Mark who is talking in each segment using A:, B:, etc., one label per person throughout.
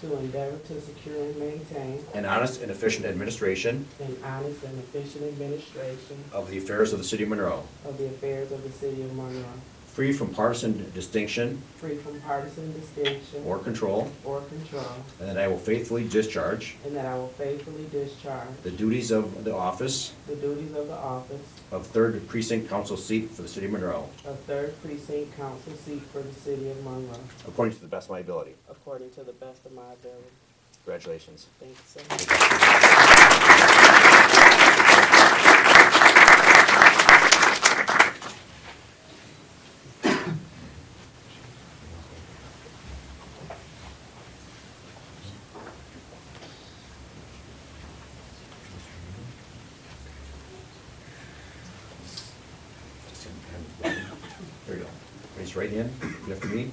A: to endeavor to secure and maintain
B: an honest and efficient administration
A: an honest and efficient administration
B: of the affairs of the city of Monroe,
A: of the affairs of the city of Monroe,
B: free from partisan distinction
A: free from partisan distinction
B: or control,
A: or control,
B: and that I will faithfully discharge
A: and that I will faithfully discharge
B: the duties of the office
A: the duties of the office
B: of Third Precinct Council seat for the city of Monroe,
A: of Third Precinct Council seat for the city of Monroe,
B: according to the best of my ability.
A: according to the best of my ability.
B: Congratulations.
A: Thank you so much.
B: There you go. Raise your right hand. Repeat after me.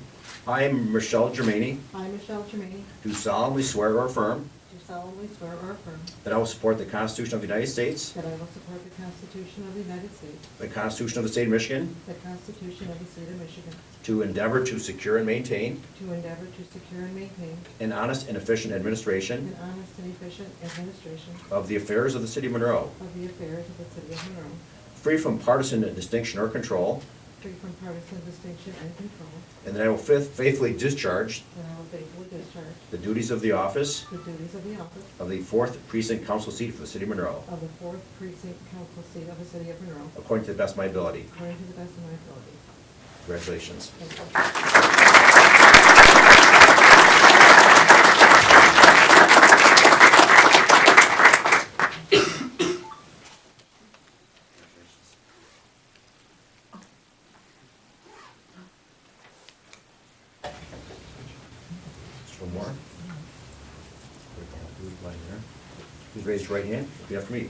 B: I am Michelle Germaini,
C: I, Michelle Tremaine,
B: do solemnly swear or affirm
C: do solemnly swear or affirm
B: that I will support the Constitution of the United States,
C: that I will support the Constitution of the United States,
B: the Constitution of the State of Michigan,
C: the Constitution of the State of Michigan,
B: to endeavor to secure and maintain
C: to endeavor to secure and maintain
B: an honest and efficient administration
C: an honest and efficient administration
B: of the affairs of the city of Monroe,
C: of the affairs of the City of Monroe,
B: free from partisan distinction or control,
C: free from partisan distinction and control,
B: and that I will faith- faithfully discharge
C: and I will faithfully discharge
B: the duties of the office
C: the duties of the office
B: of the Fourth Precinct Council seat for the city of Monroe,
C: of the Fourth Precinct Council seat of the City of Monroe,
B: according to the best of my ability.
C: according to the best of my ability.
B: Congratulations.
C: Thank you.
B: Just one more. Please raise your right hand. Repeat after me.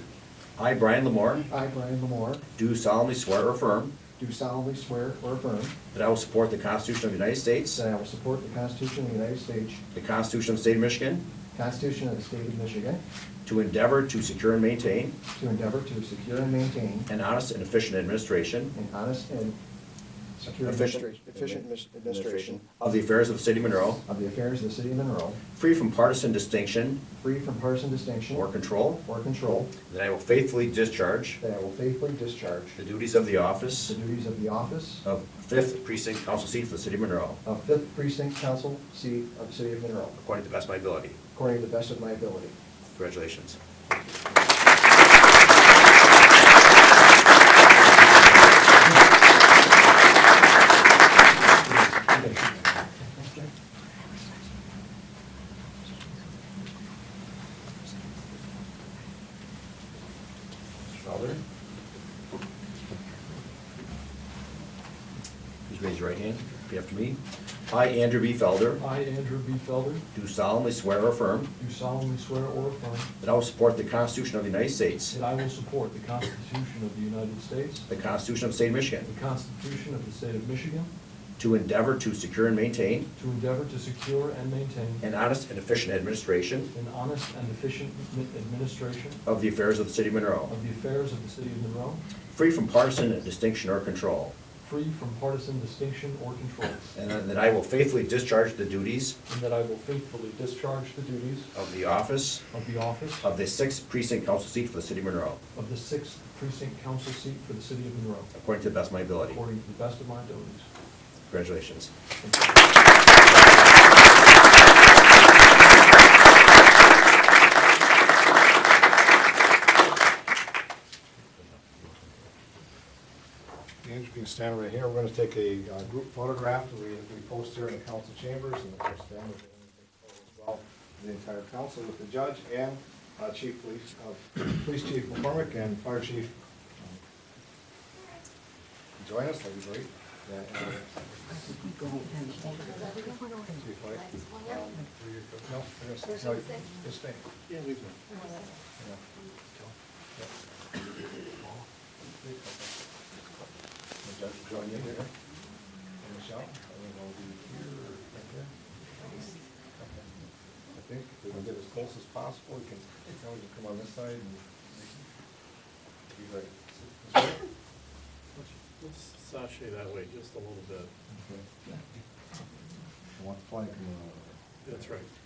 B: I, Brian Lamore,
D: I, Brian Lamore,
B: do solemnly swear or affirm
D: do solemnly swear or affirm
B: that I will support the Constitution of the United States,
D: that I will support the Constitution of the United States,
B: the Constitution of the State of Michigan,
D: Constitution of the State of Michigan,
B: to endeavor to secure and maintain
D: to endeavor to secure and maintain
B: an honest and efficient administration
D: an honest and secure
B: Efficient.
D: administration- efficient mis- administration
B: of the affairs of the city of Monroe,
D: of the affairs of the city of Monroe,
B: free from partisan distinction
D: free from partisan distinction
B: or control,
D: or control,
B: that I will faithfully discharge
D: that I will faithfully discharge
B: the duties of the office
D: the duties of the office
B: of Fifth Precinct Council seat for the city of Monroe,
D: of Fifth Precinct Council seat of the city of Monroe,
B: according to the best of my ability.
D: according to the best of my ability.
B: Congratulations. Felder? Please raise your right hand. Repeat after me. I, Andrew B. Felder,
E: I, Andrew B. Felder,
B: do solemnly swear or affirm
E: do solemnly swear or affirm
B: that I will support the Constitution of the United States,
E: that I will support the Constitution of the United States,
B: the Constitution of the State of Michigan,
E: the Constitution of the State of Michigan,
B: to endeavor to secure and maintain
E: to endeavor to secure and maintain
B: an honest and efficient administration
E: an honest and efficient admi- administration
B: of the affairs of the city of Monroe,
E: of the affairs of the City of Monroe,
B: free from partisan distinction or control,
E: free from partisan distinction or control,
B: and that I will faithfully discharge the duties
E: and that I will faithfully discharge the duties
B: of the office
E: of the office
B: of the Sixth Precinct Council seat for the city of Monroe,
E: of the Sixth Precinct Council seat for the City of Monroe,
B: according to the best of my ability.
E: according to the best of my abilities.
B: Congratulations.
F: Andrew, you can stand right here. We're going to take a uh, group photograph that we we post here in the council chambers, and of course, Dan will be able to take photos as well, the entire council with the judge and uh, Chief Police, uh, Police Chief McCormick and Fire Chief. um, Join us, that'd be great. Yeah, and, uh, Chief White, um, were you- no, there's- no, just stay. Yeah, leave them. Yeah. Would you like to join in here? And Michelle, I don't know, do you here or right there? Okay. I think if we can get as close as possible, we can, you know, you come on this side and. be like, this way?
G: Let's sashay that way just a little bit.
F: Okay. I want the flag coming out.
G: That's right.